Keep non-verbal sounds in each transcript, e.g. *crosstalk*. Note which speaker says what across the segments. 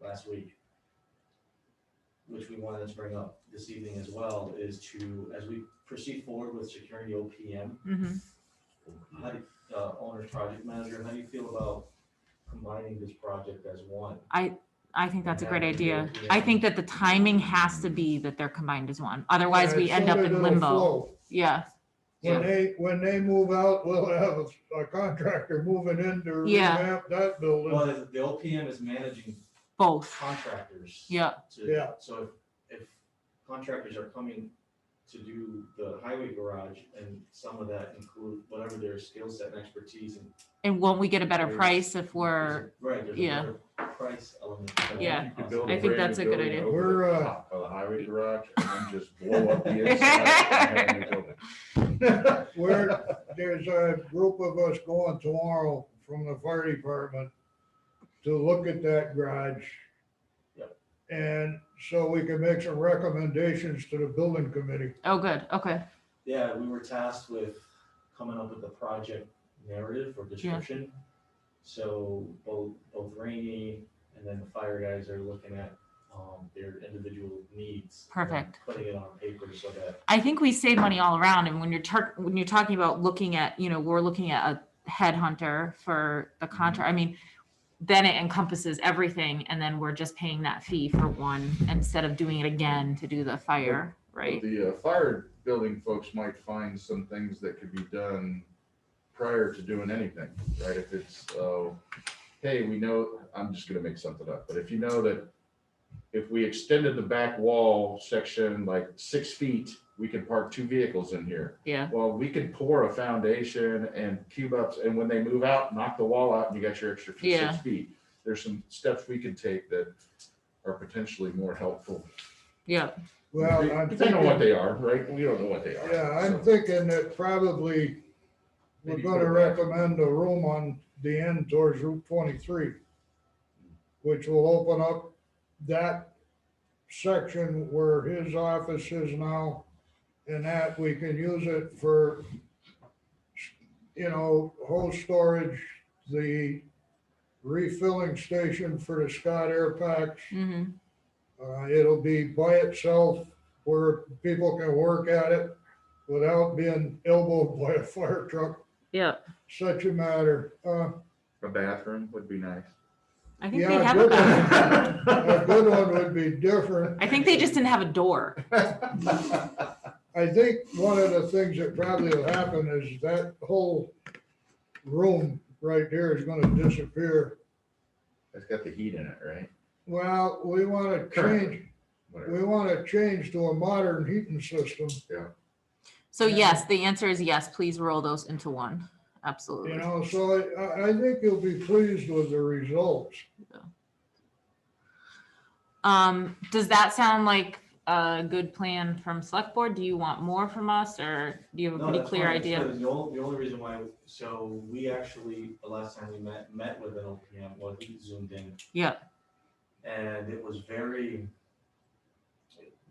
Speaker 1: last week, which we wanted to bring up this evening as well, is to, as we proceed forward with securing the OPM,
Speaker 2: Mm-hmm.
Speaker 1: how do, uh, owner's project manager, how do you feel about combining this project as one?
Speaker 2: I think that's a great
Speaker 1: Yeah,
Speaker 2: idea.
Speaker 1: yeah.
Speaker 2: I think that the timing has to be that they're combined as one. Otherwise,
Speaker 3: Yeah,
Speaker 2: we
Speaker 3: so
Speaker 2: end up
Speaker 3: that
Speaker 2: in
Speaker 3: it'll
Speaker 2: limbo.
Speaker 3: flow.
Speaker 2: Yeah,
Speaker 3: When
Speaker 2: Yeah.
Speaker 3: they, when they move out, we'll have a contractor moving in to
Speaker 2: Yeah.
Speaker 3: revamp that building.
Speaker 1: Well, the the OPM is managing
Speaker 2: both.
Speaker 1: contractors.
Speaker 2: Yeah,
Speaker 1: to-
Speaker 3: Yeah.
Speaker 1: So if, if contractors are coming to do the highway garage and some of that include whatever their skill set and expertise and.
Speaker 2: and won't we get a better
Speaker 1: There's-
Speaker 2: price if we're,
Speaker 1: there's a- Right, there's a
Speaker 2: yeah.
Speaker 1: better price element. to that.
Speaker 2: Yeah.
Speaker 4: You could build
Speaker 2: I
Speaker 4: a
Speaker 2: think
Speaker 4: brand
Speaker 2: that's
Speaker 4: new
Speaker 2: a good
Speaker 4: building
Speaker 2: idea.
Speaker 4: over the
Speaker 3: We're, uh,
Speaker 4: top Of the highway garage and
Speaker 3: *laughs*
Speaker 4: then just blow up the inside. and have a new building.
Speaker 3: *laughs* Where, there's a group of us going tomorrow from the fire department to look at that garage.
Speaker 1: Yep.
Speaker 3: And so we can make some recommendations to the building committee.
Speaker 2: oh, good, okay,
Speaker 1: Yeah, we were tasked with coming up with a project narrative or description. So both, both Rainy and then the fire guys are looking at, um, their individual needs. and
Speaker 2: Perfect.
Speaker 1: Putting it on paper so that
Speaker 2: I think we save money all around. And when you're tur- when you're talking about looking at, you know, we're looking at a headhunter for
Speaker 3: Mm-hmm.
Speaker 2: the contract. I mean, then it encompasses everything, and then we're just paying that fee for one instead of doing it again to do the fire, *laughs* right?
Speaker 4: The uh, fire building folks might find some things that could be done prior to doing anything, right? If it's, oh, hey, we know, I'm just gonna make something up, but if you know that if we extended the back wall section like six feet, we could park two vehicles in here.
Speaker 2: Yeah,
Speaker 4: Well, we could pour a foundation and cube ups, and when they move out, knock the wall out, and you got your extra feet-
Speaker 2: Yeah.
Speaker 4: six feet. There's some steps we can take that are potentially more helpful.
Speaker 2: yeah,
Speaker 3: Well, I'm
Speaker 4: Depending on
Speaker 3: thinking,
Speaker 4: what they are, right? We don't know what they are.
Speaker 3: yeah, I'm
Speaker 4: so.
Speaker 3: thinking that probably we're
Speaker 4: Maybe
Speaker 3: gonna
Speaker 4: put it back.
Speaker 3: recommend a room on the end towards Route twenty-three, which will open up that section where his office is now, and that we can use it for, you know, hose storage, the refilling station for the Scott Air Packs.
Speaker 2: hmm
Speaker 3: Uh, it'll be by itself where people can work at it without being elbowed by a fire truck
Speaker 2: yeah.
Speaker 3: such a matter. Uh,
Speaker 4: A bathroom would be nice.
Speaker 2: I think
Speaker 3: Yeah,
Speaker 2: they have a
Speaker 3: good one.
Speaker 2: bathroom.
Speaker 3: *laughs* a good one would be different.
Speaker 2: I think they just didn't have a door.
Speaker 3: I think one of the things that probably will happen is that whole room right there is gonna disappear.
Speaker 4: It's got the heat in it, right?
Speaker 3: Well, we wanna change,
Speaker 4: Whatever.
Speaker 3: we wanna change to a modern heating system,
Speaker 2: So
Speaker 3: Yeah.
Speaker 2: yes, the answer is yes, please roll those into one.
Speaker 3: you
Speaker 2: Absolutely.
Speaker 3: know, so I- I, I think you'll be pleased with the results.
Speaker 2: Um, does that sound like a good plan from select board? Do you want more from us or do you have a
Speaker 1: No,
Speaker 2: pretty
Speaker 1: that's
Speaker 2: clear
Speaker 1: fine.
Speaker 2: idea?
Speaker 1: So The only, the only reason why, so we actually, the last time we met, met with an OPM, well, he zoomed in.
Speaker 2: Yeah.
Speaker 1: And it was very,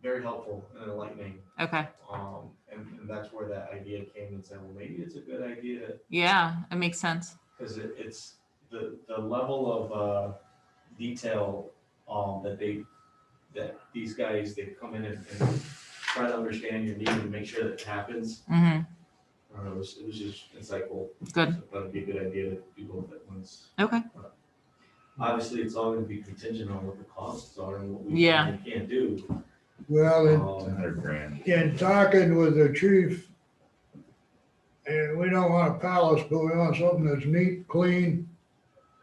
Speaker 1: very helpful and enlightening.
Speaker 2: Okay,
Speaker 1: Um, and, and that's where that idea came and said, well, maybe it's a good idea,
Speaker 2: yeah, it makes sense.
Speaker 1: because it, it's the, the level of, uh, detail, um, that they, that these guys, they come in and and try to understand your need and make sure that it happens.
Speaker 2: hmm
Speaker 1: I don't know, it was, it was just insightful.
Speaker 2: Good.
Speaker 1: So That'd be a good idea to do both at once.
Speaker 2: okay,
Speaker 1: Obviously, it's all gonna be contingent on what the costs are and what we
Speaker 2: Yeah.
Speaker 1: can and can't do.
Speaker 3: Well, and
Speaker 4: It's
Speaker 1: Um,
Speaker 4: 100 grand.
Speaker 3: in talking with the chief, and we don't want a palace, but we want something that's neat, clean,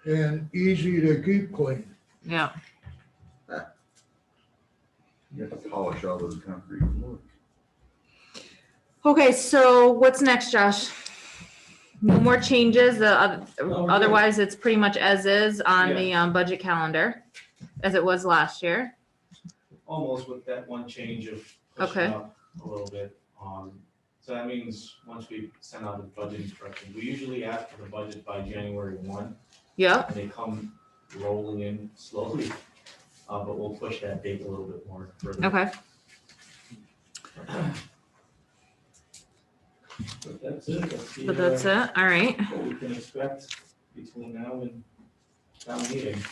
Speaker 3: and easy to keep clean.
Speaker 2: yeah,
Speaker 4: You have to polish all those concrete floors.
Speaker 2: okay, so what's next, Josh? No more changes, the, oth-
Speaker 1: No, we're good.
Speaker 2: otherwise it's pretty much as is on
Speaker 1: Yeah.
Speaker 2: the, um, budget calendar, as it was last year.
Speaker 1: Almost with that one change of pushing
Speaker 2: Okay.
Speaker 1: up a little bit. Um, so that means once we send out the budget instructions, we usually ask for the budget by January one.
Speaker 2: Yep,
Speaker 1: And they come rolling in slowly. *laughs* Uh, but we'll push that date a little bit more. further.
Speaker 2: okay,
Speaker 1: But That's it. That's the,
Speaker 2: but
Speaker 1: uh,
Speaker 2: that's it, all right.
Speaker 1: what we can expect between now and town meeting.